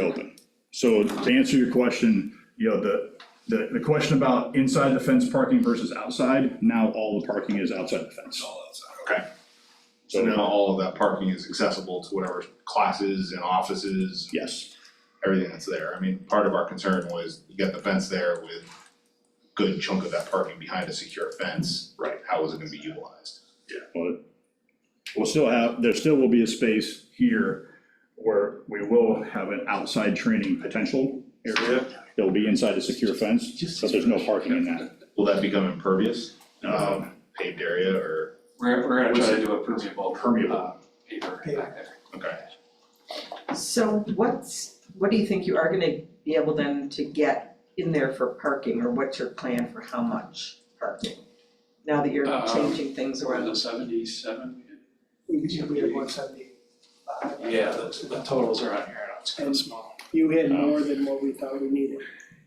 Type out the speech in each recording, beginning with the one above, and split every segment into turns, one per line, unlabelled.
open. So to answer your question, you know, the, the, the question about inside the fence parking versus outside, now all the parking is outside the fence.
all outside, okay? So now
So,
all of that parking is accessible to whatever classes and offices,
yes,
everything that's there. I mean, part of our concern was you got the fence there with good chunk of that parking behind a secure fence.
Right.
How is it gonna be utilized?
but we'll still have, there still will be a space here where we will have an outside training potential area. that will be inside a secure fence, but there's no parking in that.
Will that become impervious,
Um,
um, paved area or,
We're, we're gonna
What's
try to do a permeable.
Permeable.
uh, Paper back there.
okay?
So what's, what do you think you are gonna be able then to get in there for parking, or what's your plan for how much parking? Now that you're
Um,
changing things
So we're in
around,
the seventy-seven.
We usually we had one seventy-five.
Yeah, the, the totals are on here, and it's kind of small.
You had more than what we thought we needed.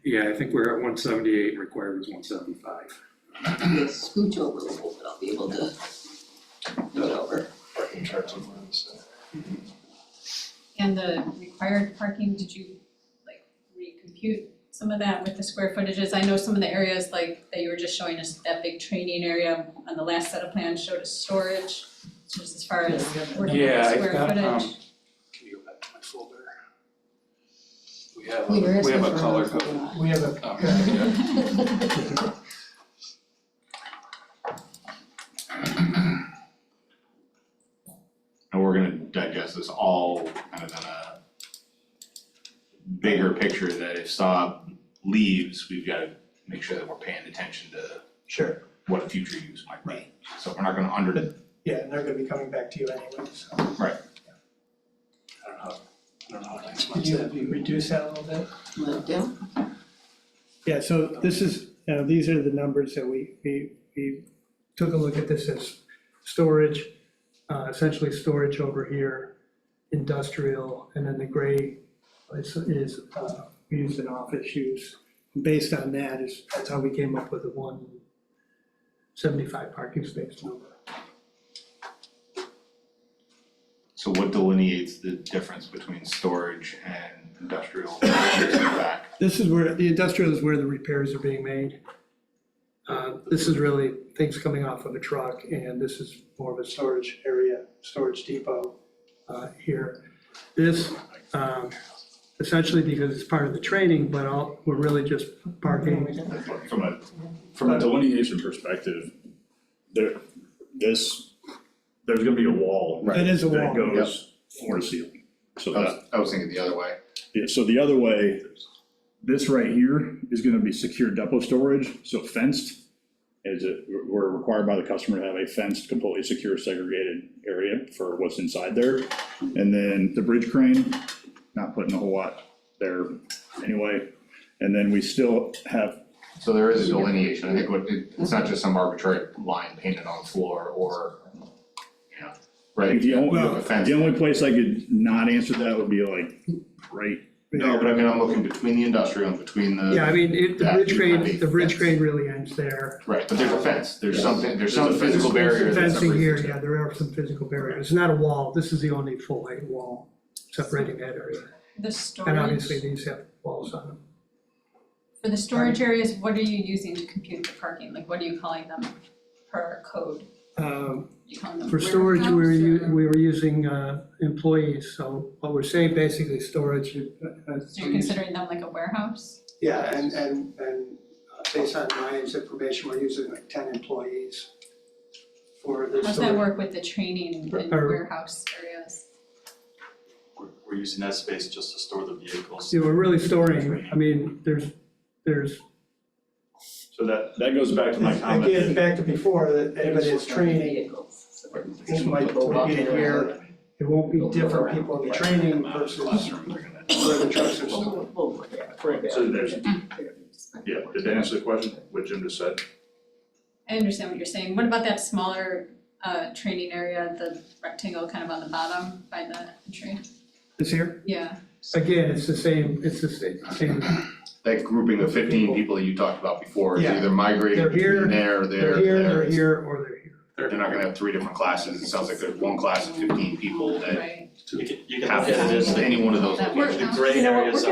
Yeah, I think we're at one seventy-eight, required was one seventy-five.
Yeah, scooch over a little bit, I'll be able to do it over.
Parking charts on this.
uh,
And the required parking, did you like recompute some of that with the square footages? I know some of the areas like that you were just showing us, that big training area on the last set of plans showed us storage, just as far as working with
Yeah,
the
I've
square
got,
footage.
um, Can you go back to my folder? We have,
Where
a-
is
we have a
this
color
one?
code.
We have a,
Um,
Yeah.
And we're gonna digest this all kind of in a bigger picture that if Saab leaves, we've gotta make sure that we're paying attention to
sure,
what a future use might be. So we're not gonna under,
yeah, and they're gonna be coming back to you anyway, so.
I don't know, I don't know what next
Could
month's gonna
you
be.
reduce that a little bit?
Let down.
Yeah, so this is, uh, these are the numbers that we, we, we took a look at this as storage, uh, essentially storage over here, industrial, and then the gray is, is, uh, we used in office use. Based on that is, that's how we came up with the one seventy-five parking space number.
so what delineates the difference between storage and industrial use in the back?
This is where, the industrial is where the repairs are being made. Uh, This is really things coming off of a truck, and this is more of a storage area, storage depot uh, here. This, um, essentially because it's part of the training, but all, we're really just parking.
From a, from a delineation perspective, there, this, there's gonna be a wall.
It is a
That
wall.
goes floor to ceiling. So that,
I was, I was thinking the other way.
yeah, so the other way, this right here is gonna be secure depot storage, so fenced. Is it, we're required by the customer to have a fenced, completely secure segregated area for what's inside there. And then the bridge crane, not putting a whole lot there anyway. And then we still have
So there is a delineation, I think what, it- it's not just some arbitrary line painted on the floor or, you know, right?
The only-
You have a fence.
The only place I could not answer that would be like, right,
No, but I mean, I'm looking between the industrial and between the.
Yeah, I mean, it- the
That
bridge
would be
crane, the bridge
fenced.
crane really ends there.
Right, but there's a fence, there's something, there's
There's
some
a fence.
physical barrier that's
Fencing
separating
here,
the two.
yeah, there are some physical barriers. It's not a wall. This is the only full height wall separating that area.
The storage.
And obviously, these have walls on them.
For the storage areas, what are you using to compute the parking? Like, what are you calling them per code?
Um,
You calling them
For storage, we were,
warehouse
u-
or-
we were using uh, employees, so what we're saying basically, storage. uh, uh,
So you're considering them like a warehouse?
Yeah, and, and, and uh, based on Ryan's information, we're using like ten employees for
How
this.
does that work with the training and
Or-
warehouse areas?
We're, we're using that space just to store the vehicles.
Yeah, we're really storing, I mean, there's, there's,
So that, that goes back to my comment.
Again, back to before, that anybody that's training,
Vehicles.
it might be getting here, it won't be different people in the training versus
Classroom, they're gonna-
where the trucks are stored.
Over, over, yeah, for a bit.
So there's, yeah, did that answer the question, what Jim just said?
I understand what you're saying. What about that smaller uh training area, the rectangle kind of on the bottom by the entry?
it's here.
Yeah,
Again, it's the same, it's the sa- same,
That grouping of fifteen people that you talked about before is
Yeah.
either migrating
They're here,
between there, there,
they're here,
there.
they're here, or they're here.
They're not gonna have three different classes, it sounds like there's one class of fifteen people that
right.
You can, you can
have
look at it as
any one of those
That
locations.
works.
the gray
You know what,
areas
we're